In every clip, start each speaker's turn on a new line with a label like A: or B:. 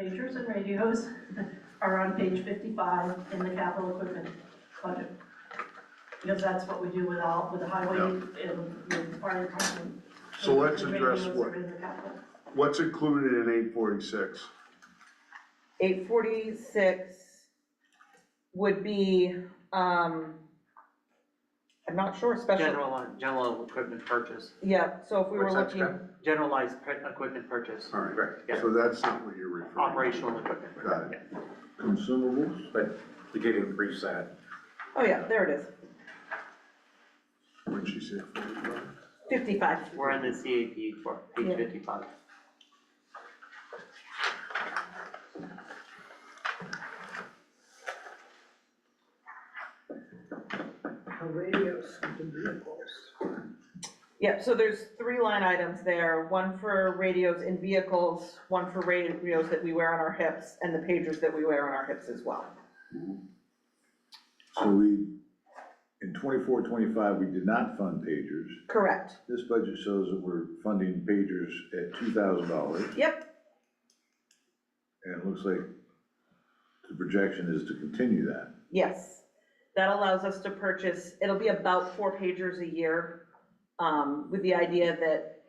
A: pagers and radios are on page 55 in the capital equipment budget. Because that's what we do with all, with the highway
B: Yeah.
A: and with fire department.
B: So let's
A: The
B: address
A: radios
B: what-
A: are in the capital.
B: What's included in eight forty-six?
C: Eight forty-six would be, um, I'm not sure, special,
D: General, uh, general equipment purchase,
C: yeah, so if we were
B: What's that,
C: looking,
B: Scott?
D: generalized pe- equipment purchase,
B: All right,
D: yeah.
B: so that's not what you're referring to.
D: operational equipment.
B: Got it.
E: Consumables? But you did increase that.
C: oh yeah, there it is,
B: What'd she say? 45?
C: fifty-five.
D: We're in the CAP for
C: Yeah.
D: page fifty-five.
F: radios and vehicles.
C: Yep, so there's three line items there, one for radios in vehicles, one for radios that we wear on our hips, and the pagers that we wear on our hips as well.
E: So we, in 24, 25, we did not fund pagers.
C: Correct,
E: This budget shows that we're funding pagers at two thousand dollars,
C: yep,
E: and it looks like the projection is to continue that.
C: yes. That allows us to purchase, it'll be about four pagers a year, um, with the idea that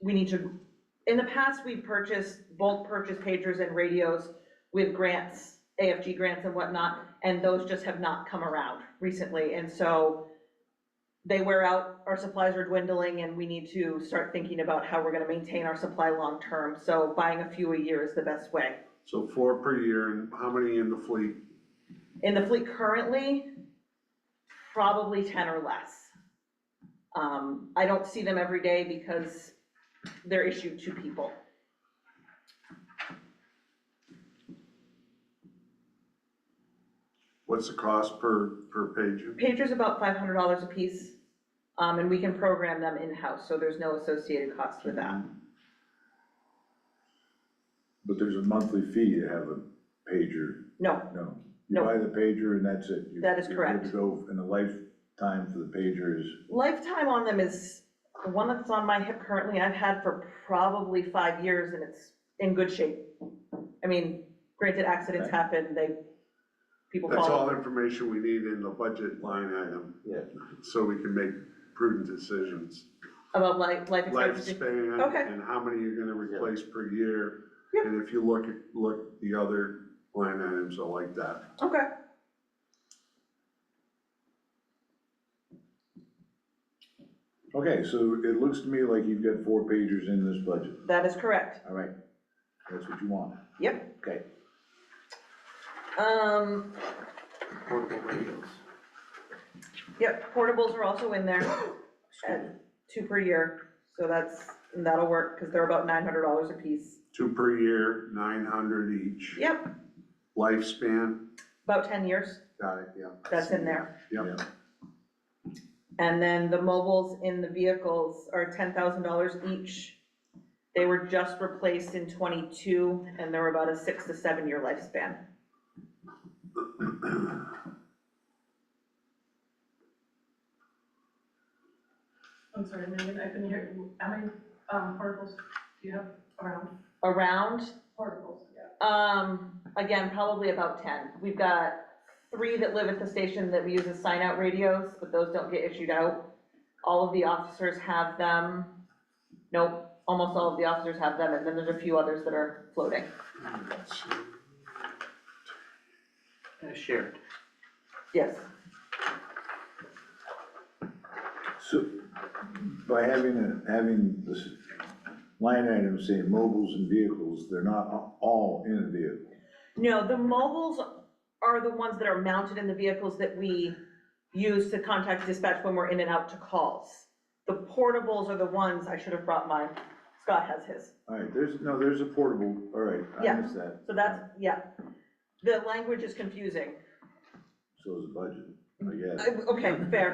C: we need to, in the past, we purchased, bulk purchased pagers and radios with grants, AFG grants and whatnot, and those just have not come around recently, and so they wear out, our supplies are dwindling, and we need to start thinking about how we're gonna maintain our supply long-term, so buying a few a year is the best way.
B: So four per year, and how many in the fleet?
C: In the fleet currently, probably ten or less. Um, I don't see them every day because they're issued to people.
B: What's the cost per, per pager?
C: Pagers about five hundred dollars a piece, um, and we can program them in-house, so there's no associated cost with that.
E: But there's a monthly fee to have a pager,
C: No,
E: no.
C: No.
E: You buy the pager and that's it. You-
C: That is correct.
E: You're good to go, and the lifetime for the pager is,
C: lifetime on them is, the one that's on my hip currently, I've had for probably five years and it's in good shape. I mean, granted, accidents
E: Okay.
C: happen, they, people
B: That's all
C: fall.
B: information we need in the budget line item.
E: Yeah.
B: So we can make prudent decisions.
C: About life, life expectancy. Okay.
B: Lifespan and how many you're gonna replace per year.
C: Yep.
B: And if you look, at look, the other line items are like that.
C: Okay,
E: okay, so it looks to me like you've got four pagers in this budget.
C: that is correct.
E: All right, that's what you want.
C: Yep.
E: Okay.
C: Um,
D: Portable radios.
C: yep, portables are also in there at two per year. So that's, and that'll work because they're about nine hundred dollars a piece.
B: Two per year, nine hundred each.
C: Yep,
B: Lifespan,
C: about ten years,
B: got it, yeah.
C: that's in there.
B: Yep.
C: And then the mobiles in the vehicles are ten thousand dollars each. They were just replaced in twenty-two, and they're about a six to seven-year lifespan.
A: I'm sorry, Megan, I couldn't hear, you. how many um, portables do you have around?
C: Around,
A: Portables, yeah.
C: um, again, probably about ten. We've got three that live at the station that we use as sign-out radios, but those don't get issued out. All of the officers have them. Nope, almost all of the officers have them, and then there's a few others that are floating.
D: Uh, Shared.
C: Yes,
E: So by having, a- having this line item saying mobiles and vehicles, they're not a- all in a vehicle.
C: No, the mobiles are the ones that are mounted in the vehicles that we use to contact dispatch when we're in and out to calls. The portables are the ones, I should have brought mine, Scott has his,
E: All right, there's, no, there's a portable, all right, I
C: Yeah,
E: missed that.
C: so that's, yeah. The language is confusing,
E: So is the budget, I guess.
C: I- Uh, okay, fair.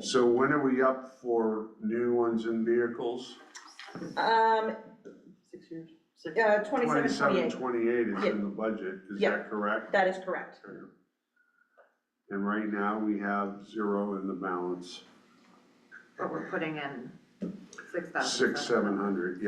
B: So when are we up for new ones and vehicles?
C: Um,
D: Six years? Six.
C: uh, twenty-seven,
B: Twenty-seven,
C: twenty-eight,
B: twenty-eight is
C: Yeah.
B: in the budget, is
C: Yeah.
B: that correct?
C: that is correct,
B: And right now, we have zero in the balance.
G: But we're putting in six thousand.
B: six, seven hundred,